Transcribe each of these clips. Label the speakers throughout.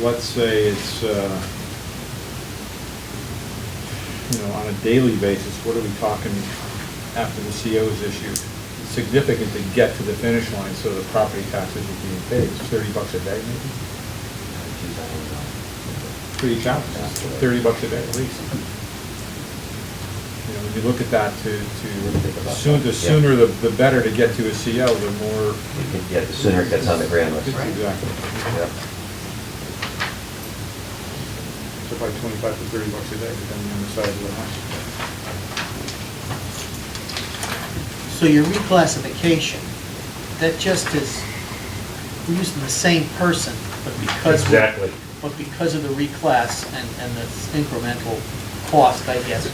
Speaker 1: let's say it's, uh, you know, on a daily basis, what are we talking after the CO is issued? Significant to get to the finish line, so the property taxes are being paid, It's thirty bucks a day maybe? For each house, thirty bucks a day at least. You know, when you look at that, to, to, soon- the sooner, the the better to get to a CO, the more.
Speaker 2: Yeah, the sooner it gets on the grand list.
Speaker 1: Exactly.
Speaker 2: Yep.
Speaker 1: So probably twenty-five to thirty bucks a day, depending on the size of the house.
Speaker 3: So your reclassification, that just is, we're using the same person, but because. we're-
Speaker 4: Exactly.
Speaker 3: But because of the reclass and, and the incremental cost, I guess,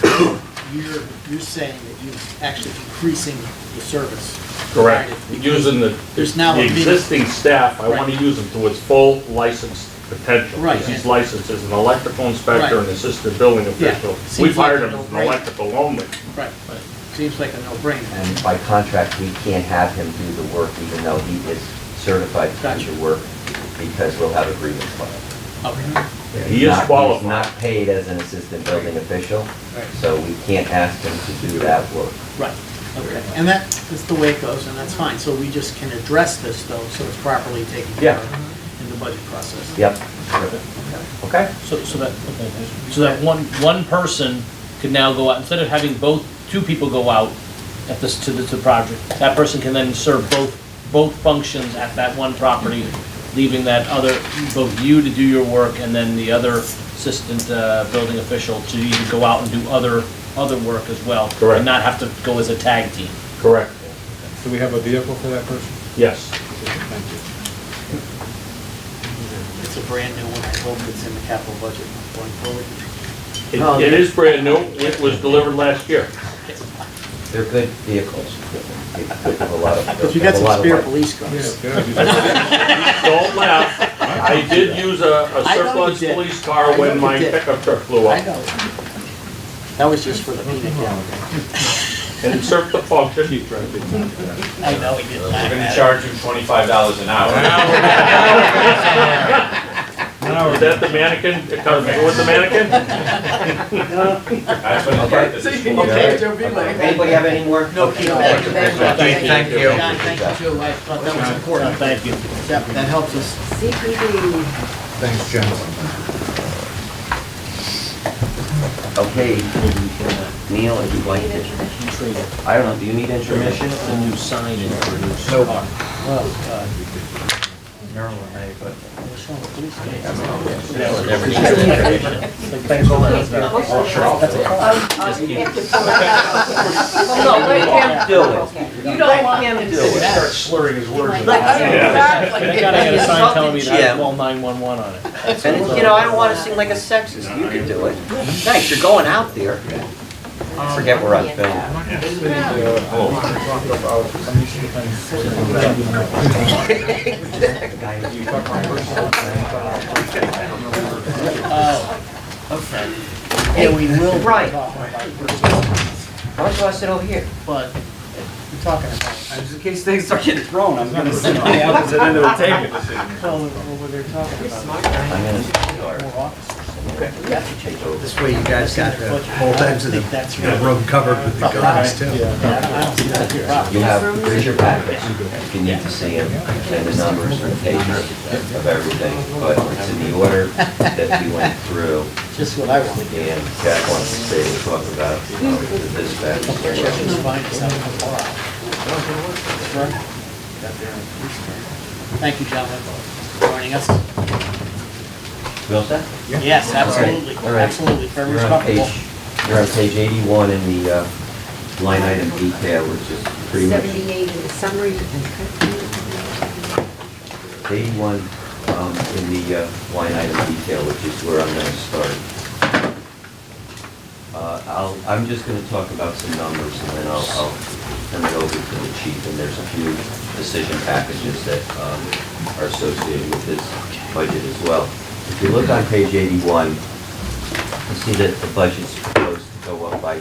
Speaker 3: you're, you're saying that you're actually increasing the service.
Speaker 4: Correct.
Speaker 3: provided.
Speaker 4: Using the,
Speaker 3: There's now
Speaker 4: the
Speaker 3: a mini-
Speaker 4: existing staff, I want to
Speaker 3: Right.
Speaker 4: use them to its full license potential.
Speaker 3: Right.
Speaker 4: Because he's licensed as an electrical inspector
Speaker 3: Right.
Speaker 4: and assistant building
Speaker 3: Yeah.
Speaker 4: official.
Speaker 3: Seems
Speaker 4: We've hired
Speaker 3: like
Speaker 4: him
Speaker 3: a
Speaker 4: as an
Speaker 3: no-brainer.
Speaker 4: electrical only.
Speaker 3: Right, seems like a no-brainer.
Speaker 2: And by contract, we can't have him do the work even though he is certified to do
Speaker 3: Gotcha.
Speaker 2: the work because we'll have a grievance filed.
Speaker 4: Mm-hmm.
Speaker 3: Okay.
Speaker 4: He is
Speaker 2: Not- He's
Speaker 4: qualified.
Speaker 2: not paid as an assistant building official,
Speaker 3: Right.
Speaker 2: so we can't ask him to do that work.
Speaker 3: Right, okay, and that is the way it goes, and that's fine, so we just can address this though, so it's properly taken care of in the budget process.
Speaker 2: Yep. Okay?
Speaker 5: So, so that, so that one, one person could now go out, instead of having both, two people go out at this, to the, to the project, that person can then serve both, both functions at that one property, leaving that other, both you to do your work and then the other assistant, uh, building official to either go out and do other, other work as well.
Speaker 4: Correct.
Speaker 5: And not have to go as a tag team.
Speaker 4: Correct.
Speaker 1: Do we have a vehicle for that person?
Speaker 4: Yes.
Speaker 1: Thank you.
Speaker 3: It's a brand new one, I hope it's in the capital budget going forward.
Speaker 4: It
Speaker 3: Oh,
Speaker 2: No.
Speaker 4: it is brand new. It was delivered last year.
Speaker 2: They're good vehicles. They have a lot of-
Speaker 3: Because we got
Speaker 2: have a lot
Speaker 3: some
Speaker 2: of
Speaker 3: spare
Speaker 2: life.
Speaker 3: police cars.
Speaker 1: Yeah, yeah.
Speaker 4: Don't laugh. I did use a a
Speaker 3: I know you
Speaker 4: surplus
Speaker 3: did.
Speaker 4: police
Speaker 3: I
Speaker 4: car
Speaker 3: know
Speaker 4: when
Speaker 3: you
Speaker 4: my
Speaker 3: did.
Speaker 4: pickup truck blew
Speaker 3: I
Speaker 4: up
Speaker 3: know. That was just for the peanut gallery.
Speaker 4: and it served the function.
Speaker 1: Keep driving. Yeah.
Speaker 3: I know we did
Speaker 6: We're gonna
Speaker 3: that.
Speaker 6: charge you twenty-five dollars an hour.
Speaker 1: Now
Speaker 4: Is
Speaker 1: we're-
Speaker 4: that the mannequin? It comes with the mannequin?
Speaker 6: That's what the purpose is for.
Speaker 2: Okay.
Speaker 3: John,
Speaker 2: Anybody have any more?
Speaker 3: No, Keith, thank you very much.
Speaker 2: Thank you.
Speaker 3: thank you, too. I thought that was
Speaker 5: Uh,
Speaker 3: important.
Speaker 5: Thank you.
Speaker 3: That, that helps us.
Speaker 7: CPD.
Speaker 1: Thanks, gentlemen.
Speaker 2: Okay, Neil, if you'd like to, I don't know, do you need intermission?
Speaker 5: It's a new sign in for a new
Speaker 2: No.
Speaker 5: car.
Speaker 7: No, let him
Speaker 2: Do
Speaker 7: You don't want him to do
Speaker 2: it.
Speaker 7: it.
Speaker 2: Start
Speaker 5: slurring his words.
Speaker 7: Exactly.
Speaker 5: I gotta get a sign telling me
Speaker 2: Yeah.
Speaker 5: that I call 911 on it.
Speaker 2: And, you know, I don't want to seem like a sexist, you can do it. Thanks, you're going out there. Forget we're on film.
Speaker 3: Yeah, we will.
Speaker 2: Right.
Speaker 3: talk about it,
Speaker 2: Why don't you want to sit over here?
Speaker 3: But we're talking about,
Speaker 8: Just in case things start getting thrown, I'm gonna sit on
Speaker 1: Yeah,
Speaker 8: it.
Speaker 1: it's an end of the table decision.
Speaker 3: well, we're, we're talking about
Speaker 2: I'm in a car.
Speaker 3: more officers.
Speaker 2: Take over.
Speaker 8: This way you guys got the whole ends of
Speaker 3: I think
Speaker 8: the
Speaker 3: that's
Speaker 8: the
Speaker 3: right.
Speaker 8: room covered with the guns too.
Speaker 3: I don't see that as a problem.
Speaker 2: You have, here's your packets, if you need to see them, and the numbers and pages of everything, but it's in the order that we went through,
Speaker 3: Just what I want.
Speaker 2: and Jack wants to stay and talk about uh, the dispatch.
Speaker 3: Just find us out tomorrow. Thank you, gentlemen, for joining us.
Speaker 2: You all set?
Speaker 3: Yes, absolutely,
Speaker 2: All right.
Speaker 3: absolutely, very
Speaker 2: You're on
Speaker 3: respectable.
Speaker 2: page, you're on page 81 in the uh, line item detail, which is pretty much,
Speaker 7: 78 in the summary. Thank
Speaker 2: 81 um, in the uh, line item detail, which is where I'm going to start. Uh, I'll, I'm just going to talk about some numbers, and then I'll, I'll turn it over to the chief, and there's a few decision packages that um, are associated with this budget as well. If you look on page 81, You see that the budget's proposed to go up by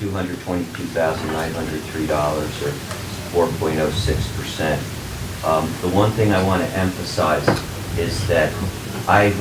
Speaker 2: $222,903, or 4.06%. Um, The one thing I want to emphasize is that I